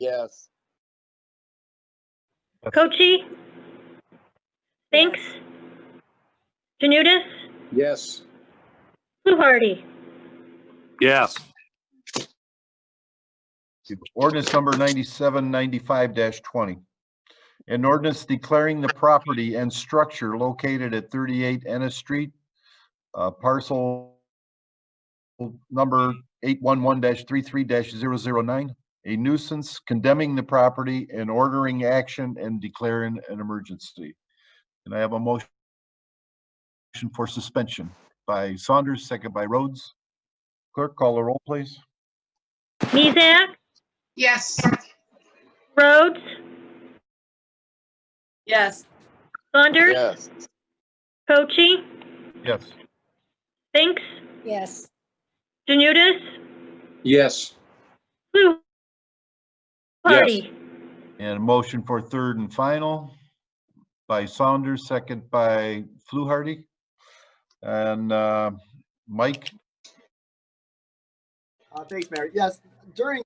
Yes. Cochi? Spinks? Janudis, Yes. Fluharty? Yes. Ordinance number ninety-seven ninety-five twenty. An ordinance declaring the property and structure located at thirty-eight Ennis Street, uh, parcel number eight-one-one 33 three-three a nuisance, condemning the property and ordering action and declaring an emergency. And I have a motion for suspension by Saunders, second by Rhodes. Clerk, call the roll, please. Mizek? Yes. Rhodes? Yes. Saunders? Yes. Cochi? Yes. Spinks? Yes. Janudis, Yes. Fluharty? And a motion for third and final by Saunders, second by Fluharty. And uh, Mike, Uh, thanks, Mayor. Yes, during,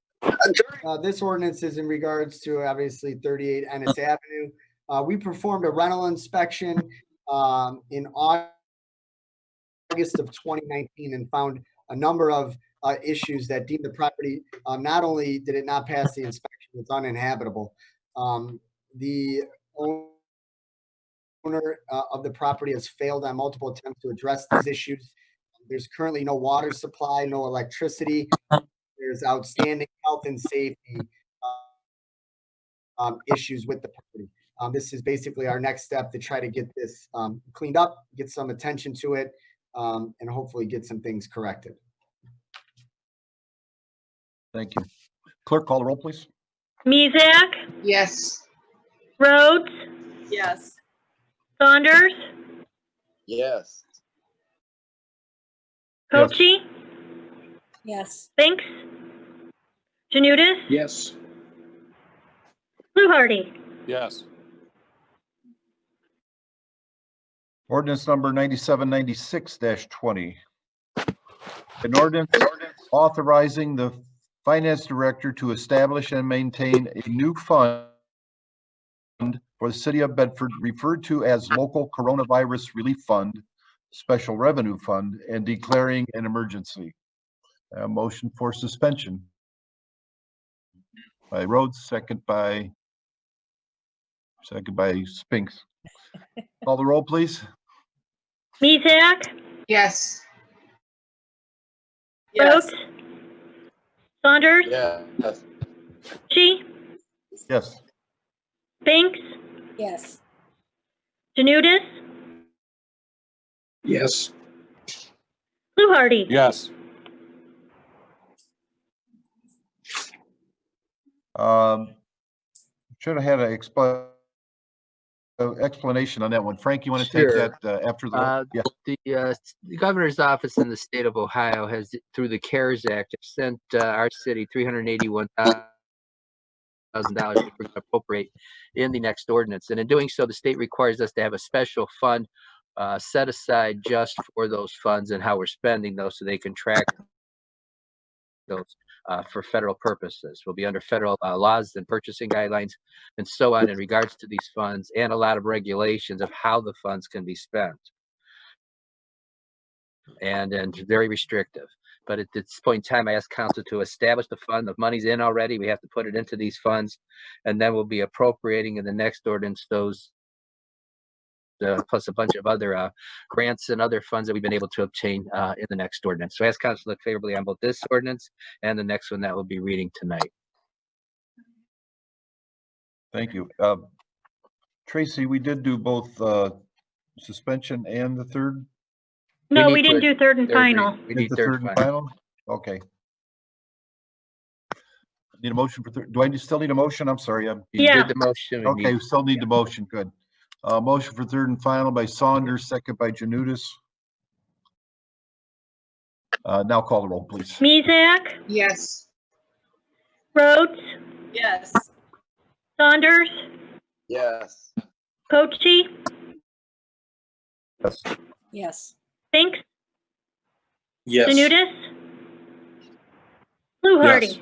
uh, this ordinance is in regards to obviously thirty-eight Ennis Avenue. Uh, we performed a rental inspection, um, in Au- August of twenty nineteen and found a number of, uh, issues that deemed the property, uh, not only did it not pass the inspection, it's uninhabitable. Um, the owner uh, of the property has failed on multiple attempts to address these issues. There's currently no water supply, no electricity. There's outstanding health and safety uh, um, issues with the property. Um, This is basically our next step to try to get this um, cleaned up, get some attention to it, um, and hopefully get some things corrected. thank you. Clerk, call the roll, please. Mizek? Yes. Rhodes? Yes. Saunders? Yes. Yes. Cochi? Yes. Spinks? Janudis, Yes. Fluharty? Yes. Ordinance number ninety-seven ninety-six twenty. An ordinance authorizing the finance director to establish and maintain a new fund for the city of Bedford referred to as local coronavirus relief fund, special revenue fund, and declaring an emergency. A motion for suspension. By Rhodes, second by, second by Spinks. Call the roll, please. Mizek? Yes. Rhodes? Saunders? Yes. Cochi? Yes. Spinks? Yes. Janudis, Yes. Fluharty? Yes. Um, should have had an expla- uh, explanation on that one. Frank, you want to take Sure. that uh, after Uh, the, yeah, the uh, s- the governor's office in the state of Ohio has, through the CARES Act, has sent uh, our city three hundred eighty-one thousand dollars to pr- appropriate in the next ordinance. And in doing so, the state requires us to have a special fund uh, set aside just for those funds and how we're spending those, so they can track those uh, for federal purposes. Will be under federal uh, laws and purchasing guidelines and so on in regards to these funds and a lot of regulations of how the funds can be spent and and very restrictive. But at this point in time, I ask council to establish the fund. The money's in already. We have to put it into these funds, and then we'll be appropriating in the next ordinance those. Uh, plus a bunch of other uh, grants and other funds that we've been able to obtain uh, in the next ordinance. So I ask council to look favorably on both this ordinance and the next one that we'll be reading tonight. thank you. Uh, Tracy, we did do both, uh, suspension and the third. No, need we didn't to- do third and Third reading. final. We is need the third and final. final? Okay. Need a motion for third, do I need- still need a motion? I'm sorry, I'm. You Yeah. did the motion. we need- Okay, we still need the motion, good. Uh, motion for third and final by Saunders, second by Janutus. Uh, now call the roll, please. Mizek? Yes. Rhodes? Yes. Saunders? Yes. Cochi? Yes. Yes. Spinks? Yes. Janudis, Fluharty?